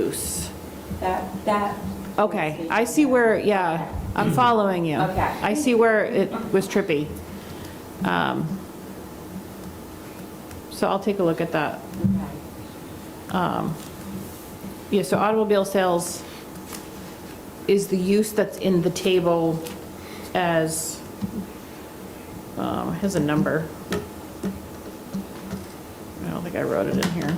use. That, that. Okay, I see where, yeah, I'm following you. Okay. I see where it was trippy. Um, So I'll take a look at that. Okay. Um, Yeah, so automobile sales is the use that's in the table as, um, has a number. I don't think I wrote it in here.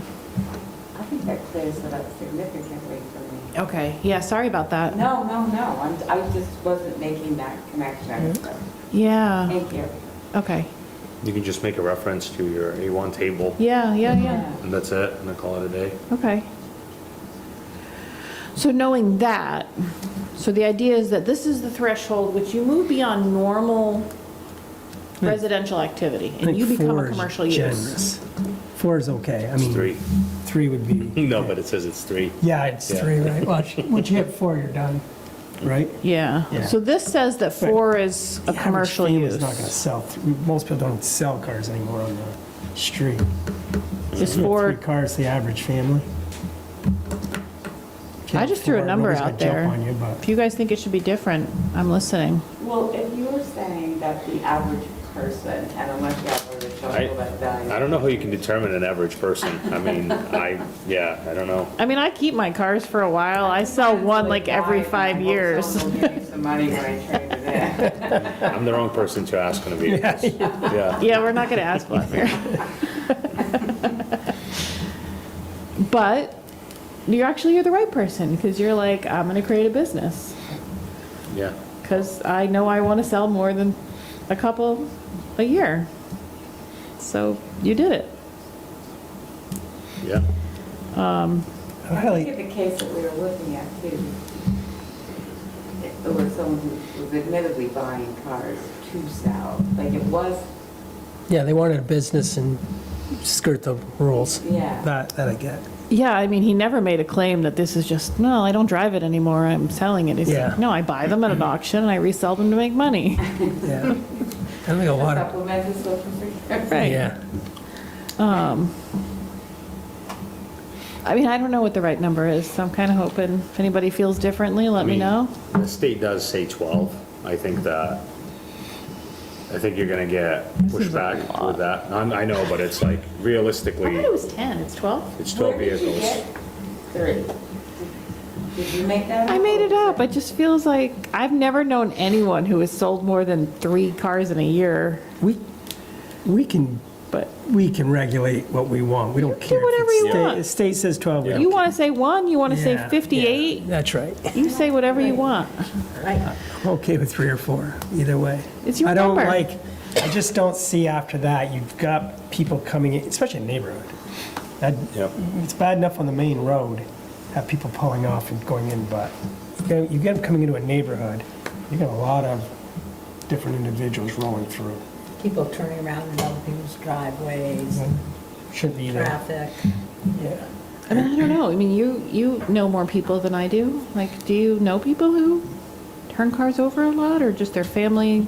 I think that clears it up significantly for me. Okay, yeah, sorry about that. No, no, no, I'm, I just wasn't making that connection. so, Mm-hmm. Yeah, Thank you. okay. You can just make a reference to your A1 table, Yeah, Oh, Oh, yeah, yeah. and that's it, and then call it a day. Okay. So knowing that, so the idea is that this is the threshold which you move beyond normal residential activity I and think you become four a is commercial use. generous. Four is okay. I It's mean, three. Three would be, No, but it says it's three. yeah, it's Yeah. three, right? Once, once you hit four, you're done, right? Yeah, Yeah. so this says that four is a The average commercial use. family's not going to sell, th- most people don't sell cars anymore on the street. Is Three four, cars, the average family. If you I hit just threw a four, number nobody's out gonna there. Jump on you, if but you guys think it should be different, I'm listening. Well, if you were saying that the average person, and unless you have a I, social value. I don't know how you can determine an average person. I mean, I, yeah, I don't know. I mean, I keep my cars for a while. I sell one like every five years. Someone will give me some money when I trade it in. I'm the wrong person to ask on a vehicle. Yeah. Yeah, we're not going to ask Vladimir. But you're actually, you're the right person, because you're like, I'm going to create a business, Yeah. because I know I want to sell more than a couple a year. So you did it. Yeah. I Look like, at the case that we were looking at too. It was someone who was admittedly buying cars to sell, like it was, yeah, they wanted a business and skirt the rules. yeah. That, that I get. Yeah, I mean, he never made a claim that this is just, no, I don't drive it anymore, I'm selling it. He's Yeah. like, no, I buy them at an auction and I resell them to make money. Yeah. I think a lot of, Supplement is looking for. Right. yeah. I mean, I don't know what the right number is, so I'm kind of hoping, if anybody feels differently, let me mean, know. The state does say 12. I think that, I think you're gonna get pushback with that. I'm- I know, but it's like I realistically, thought it was 10, it's 12? it's 12 Where did you vehicles. get three? Did you make that? I up, made or it was up, it just feels like, I've never known anyone who has sold more than three cars in a year, We, we can but we can regulate what we want. We don't do care. if whatever it's you state- want. The state says 12. we you don't want to say one, you want to Yeah, say yeah, 58, That's right. you say whatever you want. I'm okay with three or four, either way. It's your I number. don't like, I just don't see after that, you've got people coming, in, especially in neighborhood. That- Yep. It's bad enough on the main road, have people pulling off and going in, but you get- you get them coming into a neighborhood, you got a lot of different individuals rolling through. people turning around in other people's driveways, Shouldn't be there. traffic. Yeah. I mean, I don't know, I mean, you, you know more people than I do, like, do you know people who turn cars over a lot, or just their family?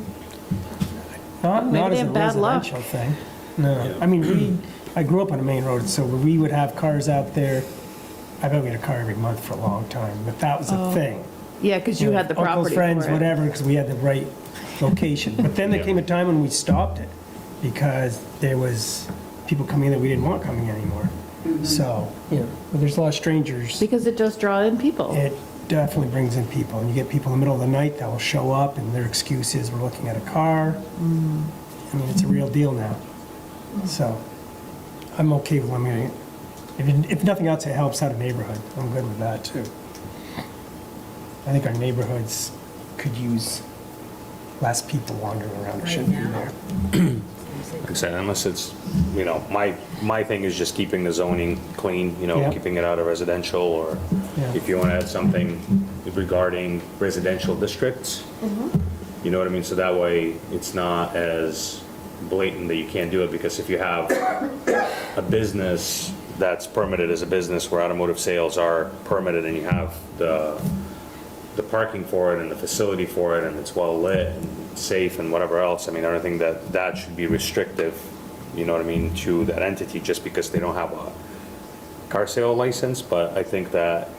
Not, Maybe not they as a have bad luck. residential thing. No, I mean, we, I grew up on a main road, so we would have cars out there. I bet we had a car every month for a long time, but that was Oh. a thing. Yeah, because you had the property Uncles, for friends, it. whatever, because we had the right location. But then there Yeah. came a time when we stopped it because there was people coming in that we didn't want coming in anymore. Mm-hmm. So, you know, but there's a lot of strangers. Because it does draw in people. It definitely brings in people, and you get people in the middle of the night that will show up, and their excuse is, we're looking at a car. Mm. I mean, it's a real deal now. So I'm okay with limiting it. If, it- if nothing else, it helps out a neighborhood. I'm good with that, too. I think our neighborhoods could use less people wandering around. It shouldn't be Right now. there. Like I said, unless it's, you know, my, my thing is just keeping the zoning clean, you know, Yeah. keeping it out of residential, or Yeah. if you want to add something regarding residential districts, you know what I mean? So that way, it's not as blatant that you can't do it, because if you have a business that's permitted as a business where automotive sales are permitted and you have the, the parking for it and the facility for it and it's well lit and safe and whatever else, I mean, I don't think that that should be restrictive, you know what I mean, to that entity just because they don't have a car sale license, but I think that